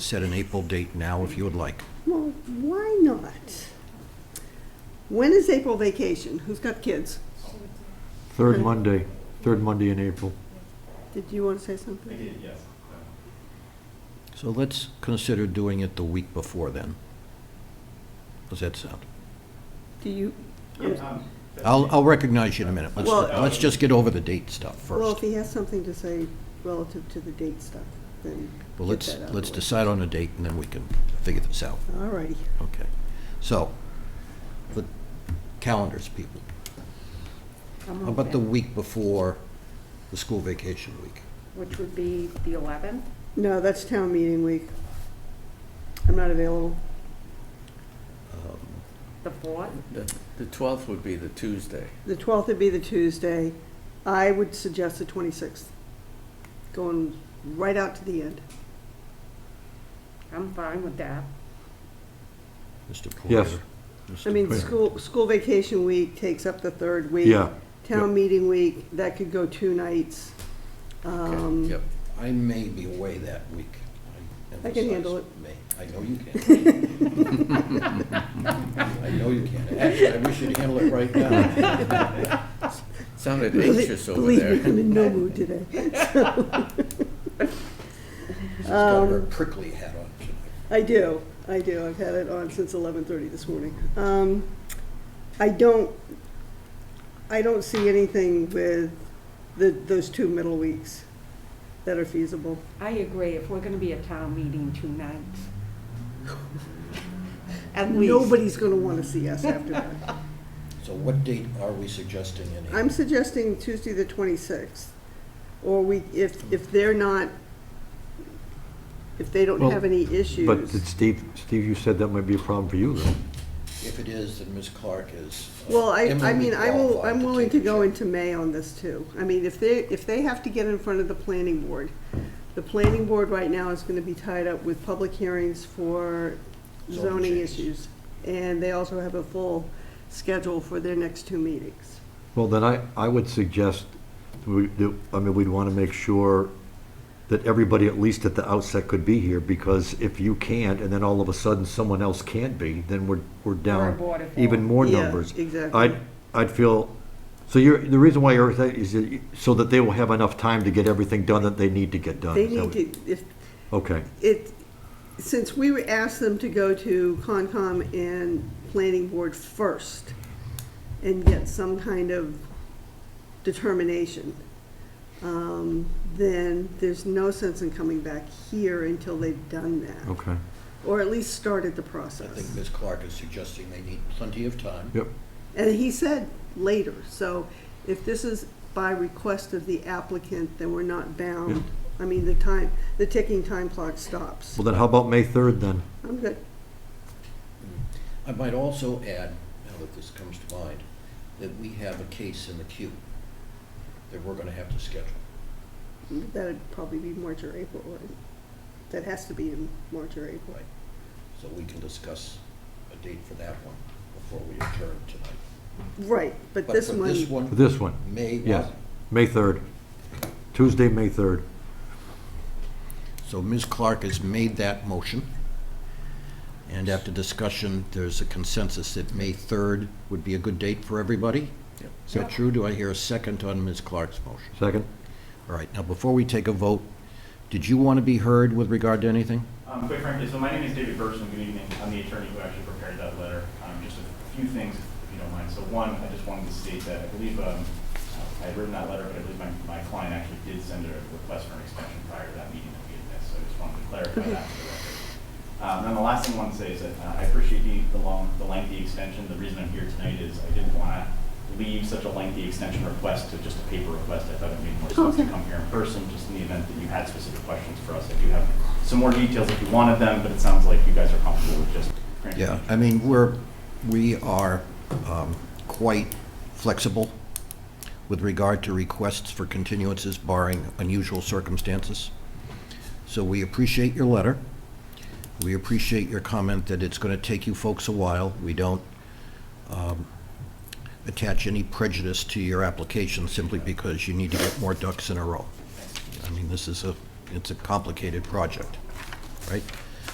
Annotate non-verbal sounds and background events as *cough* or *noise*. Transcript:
set an April date now if you would like. Well, why not? When is April vacation? Who's got kids? Third Monday, third Monday in April. Did you want to say something? So let's consider doing it the week before then. Does that sound? Do you, Um, I'll, I'll recognize you in a minute. Let's, Well- um, let's just get over the date stuff well, if first. he has something to say relative to the date stuff, then Well, get let's, that out of the let's way. decide on a date and then we can figure this out. All righty. Okay. So, the calendars, people. I'm How about the open, week before the school vacation week? Which would be the 11th. No, that's town meeting week. I'm not available. The 4th? The the 12th would be the Tuesday. The 12th would be the Tuesday. I would suggest the 26th, going right out to the end. I'm fine with that. Mr. Yes. Poirier? Mr. I mean, Right. school, school vacation week takes up the third week. Yeah, Town meeting week, that could go two nights. Um, Yep. I may be away that week. I can handle it. May. I know you can. *laughs* I know you can. Actually, I wish you'd handle it right now. Sounded Belie- anxious over Believe me, I'm there. in no *laughs* mood today. She's got Um, her prickly hat on tonight. I do, I do. I've had it on since 11:30 this morning. Um, I don't, I don't see anything with the, those two middle weeks that are feasible. I agree, if we're going to be at town meeting *laughs* two nights. At least. Nobody's going to want to see us after that. So what date are we suggesting in April? I'm suggesting Tuesday, the 26th, or we, if, if they're not, if they don't Well, have any issues. but did Steve, Steve, you said that might be a problem for you though. If it is, then Ms. Clark is. uh, Well, I, I eminently mean, I will, qualified I'm willing take to the go chair. into May on this too. I mean, if they, if they have to get in front of the planning board, the planning board right now is gonna be tied up with public hearings for Zoning zoning changes. issues. And they also have a full schedule for their next two meetings. Well, then I, I would suggest, we, do- I mean, we'd want to make sure that everybody, at least at the outset, could be here, because if you can't, and then all of a sudden someone else can't be, then we're, we're down border even form. more Yeah, numbers. exactly. I'd, I'd feel, so you're, the reason why you're, saying is that you- so that they will have enough time to get everything done that they need to get done. They is that need to, if, what- Okay, it, since we were asked them to go to Concom and Planning Board first and get some kind of determination, um, then there's no sense in coming back here until they've done that. okay, Or at least started the I think process. Ms. Clark is suggesting they need plenty of time. yep, And he said later, so if this is by request of the applicant, then we're not bound. I mean, the time, the ticking time clock stops. well then how about May third then? I'm good. I might also add, now that this comes to mind, that we have a case in the queue that we're going to have to schedule. That'd probably be March or April, right? That has to be in March or April. Right. So we can discuss a date for that one before we adjourn tonight. Right, but But this for one. This one, This one? May Yes, what? May 3rd. Tuesday, May 3rd. So Ms. Clark has made that motion. And after discussion, there's a consensus that May 3rd would be a good date for everybody? Yep. Is that true? Do I hear a second on Ms. Clark's motion? Second? All right, now before we take a vote, did you want to be heard with regard to anything? Um, Quite frankly, so my name is David Bergson, good evening. I'm the attorney who actually prepared that letter. Um, Just a few things, if you don't mind. So one, I just wanted to state that I believe, um, I had written that letter, but I believe my, my client actually did send a request for an extension prior to that meeting that we had missed, so I just wanted to clarify that for the record. Um, And then the last thing I want to say is that uh, I appreciate the, the long, the lengthy extension. The reason I'm here tonight is I didn't want to leave such a lengthy extension request to just a paper request. I thought it made more sense to come here in person, just in the event that you had specific questions for us. I do have some more details if you wanted them, but it sounds like you guys are comfortable with just granting. Yeah, I mean, we're, we are um, quite flexible with regard to requests for continuances barring unusual circumstances. So we appreciate your letter. We appreciate your comment that it's going to take you folks a while. We don't um, attach any prejudice to your application simply because you need to get more ducks in a row. I mean, this is a, it's a complicated project, right?